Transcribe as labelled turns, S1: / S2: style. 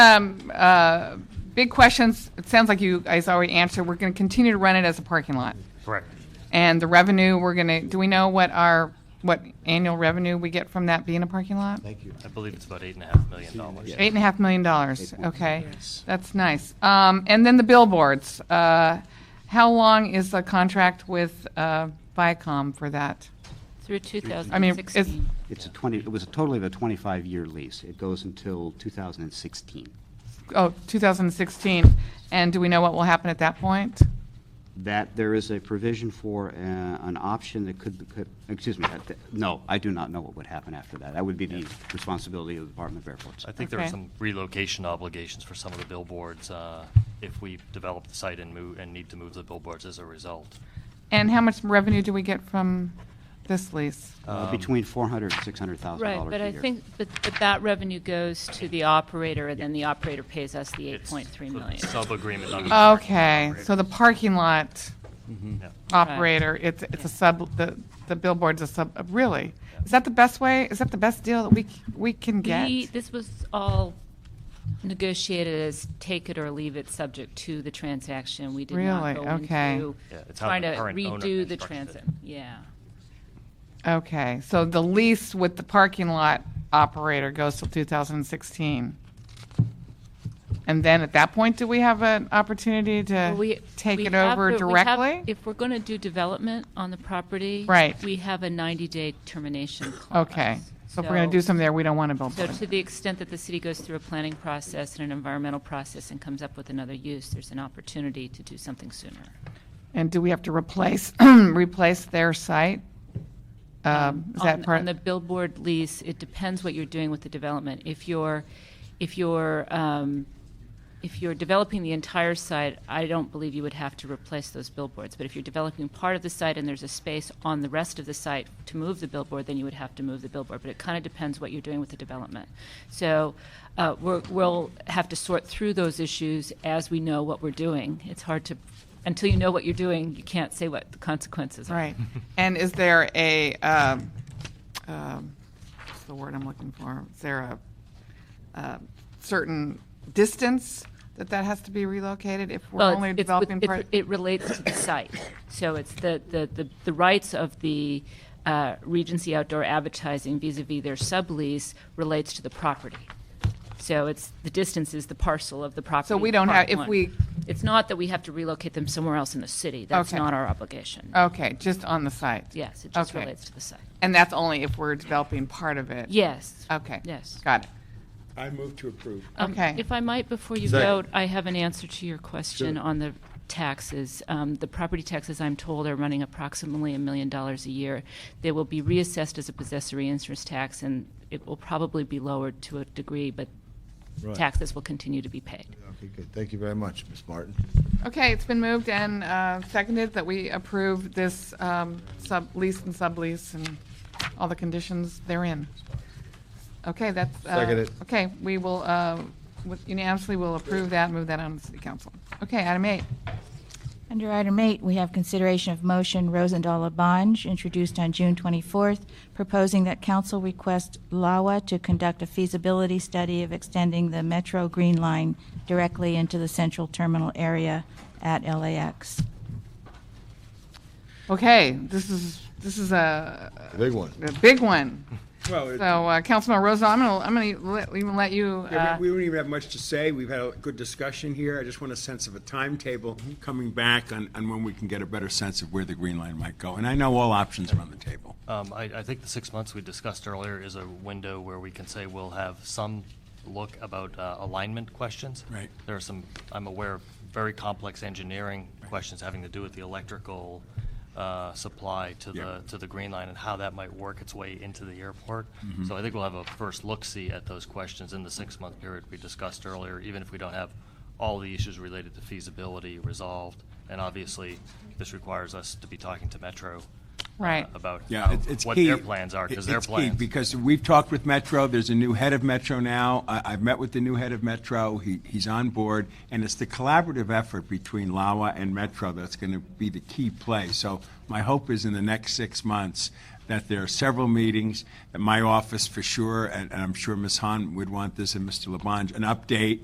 S1: Um, uh, big questions, it sounds like you guys already answered, we're gonna continue to run it as a parking lot.
S2: Correct.
S1: And the revenue, we're gonna, do we know what our, what annual revenue we get from that being a parking lot?
S3: Thank you.
S2: I believe it's about eight and a half million dollars.
S1: Eight and a half million dollars,
S3: million,
S1: okay,
S3: yes.
S1: that's nice. Um, and then the billboards, uh, how long is the contract with, uh, Viacom for that?
S4: Through
S1: I mean, it's,
S4: 2016.
S3: It's a 20, it was a total of a 25-year lease. It goes until 2016.
S1: oh, 2016, and do we know what will happen at that point?
S3: That, there is a provision for uh, an option that could, could- excuse me, that- that- no, I do not know what would happen after that. That would be the responsibility of the Department of Airports.
S2: I think there are
S1: Okay.
S2: some relocation obligations for some of the billboards, uh, if we develop the site and move, and need to move the billboards as a result.
S1: And how much revenue do we get from this lease?
S3: Uh,
S2: um,
S3: Between 400 and 600,000 dollars a
S4: Right,
S3: year.
S4: but I think, but but that revenue goes to the operator, and then the operator pays us the
S2: It's
S4: 8.3
S2: the
S4: million.
S2: Sub-agreement. under-
S1: Oh. Okay, so the parking lot
S2: Yeah.
S1: operator, it's, it's a sub, the, the billboard's a sub, uh, really? Is that the best way, is that the best deal that we, c- we can get?
S4: We- This was all negotiated as take it or leave it, subject to the transaction. We did
S1: Really?
S4: not go
S1: Okay.
S4: into
S2: Yeah, it's how
S4: trying
S2: the
S4: to
S2: current owner
S4: redo the
S2: constructed it.
S4: transit. Yeah,
S1: Okay, so the lease with the parking lot operator goes till 2016? And then at that point, do we have an opportunity
S4: Well, we-
S1: to take
S4: we
S1: it
S4: have
S1: over
S4: the- we have-
S1: directly?
S4: If we're going to do development on the property.
S1: Right.
S4: We have a 90-day termination clause.
S1: Okay, so if we're going to do
S4: So-
S1: something there, we don't want a
S4: So
S1: billboard.
S4: to the extent that the city goes through a planning process and an environmental process and comes up with another use, there's an opportunity to do something sooner.
S1: And do we have to replace, replace their site? Um, Is that
S4: On-
S1: part?
S4: On the billboard lease, it depends what you're doing with the development. If you're, if you're, um, if you're developing the entire site, I don't believe you would have to replace those billboards. But if you're developing part of the site and there's a space on the rest of the site to move the billboard, then you would have to move the billboard. But it kind of depends what you're doing with the development. So uh, we're, we'll have to sort through those issues as we know what we're doing. It's hard to, until you know what you're doing, you can't say what the consequences are.
S1: Right. And is there a, um, um, what's the word I'm looking for? Is there a uh, certain distance that that has to be relocated if we're
S4: Well, it's-
S1: only
S4: it's with-
S1: developing
S4: it-
S1: part?
S4: It relates to the site. So it's the, the, the- the rights of the uh, Regency Outdoor Advertising vis-à-vis their sublease relates to the property. So it's, the distance is the parcel of the property.
S1: So we don't
S4: part
S1: have- if
S4: one.
S1: we-
S4: It's not that we have to relocate them somewhere else in the city. That's
S1: Okay.
S4: not our obligation.
S1: Okay, just on the site?
S4: Yes, it just
S1: okay.
S4: relates to the site.
S1: And that's only if we're developing part of it?
S4: Yes.
S1: Okay.
S4: Yes.
S1: Got it.
S5: I move to approve.
S4: Um,
S1: Okay.
S4: If I might, before you
S5: Second.
S4: vote, I have an answer to your question
S5: Sure.
S4: on the taxes. Um, The property taxes, I'm told, are running approximately a million dollars a year. They will be reassessed as a possessory interest tax, and it will probably be lowered to a degree, but
S5: Right.
S4: taxes will continue to be paid.
S5: Okay, good. Thank you very much, Ms. Martin.
S1: Okay, it's been moved and uh, seconded that we approve this um, sublease and sublease and all the conditions therein. Okay, that's. uh,
S5: Seconded.
S1: Okay, we will, uh, with- unanimously will approve that, move that on to the council. Okay, item eight.
S6: Under item eight, we have consideration of motion Rosendahl Labange, introduced on June 24th, proposing that council request LAWA to conduct a feasibility study of extending the Metro Green Line directly into the central terminal area at LAX.
S1: Okay, this is, this is a
S5: The Big one.
S1: a big one.
S7: Well, it-
S1: So, uh, Councilman Rosen, I'm going to, I'm going to let even let you.
S7: yeah,
S1: uh,
S7: we we don't even have much to say. We've had a good discussion here. I just want a sense of a timetable coming back on, on when we can get a better sense of where the green line might go. And I know all options are on the table.
S2: Um, I, I think the six months we discussed earlier is a window where we can say we'll have some look about uh, alignment questions.
S7: Right.
S2: There are some, I'm aware of very complex engineering questions having to do with the electrical uh, supply to the,
S7: Yep.
S2: to the Green Line and how that might work its way into the airport.
S7: Mm-hmm.
S2: So I think we'll have a first look-see at those questions in the six-month period we discussed earlier, even if we don't have all the issues related to feasibility resolved. And obviously, this requires us to be talking to Metro. uh,
S1: Right.
S2: About
S7: Yeah,
S2: how-
S7: it's, it's
S2: what
S7: key.
S2: their plans are, because
S7: It-
S2: their
S7: it's key,
S2: plans.
S7: Because we've talked with Metro, there's a new head of Metro now. I, I've met with the new head of Metro, he, he's on board, and it's the collaborative effort between LAWA and Metro that's going to be the key play. So my hope is in the next six months that there are several meetings, that my office for sure, and and I'm sure Ms. Hahn would want this, and Mr. Labange, an update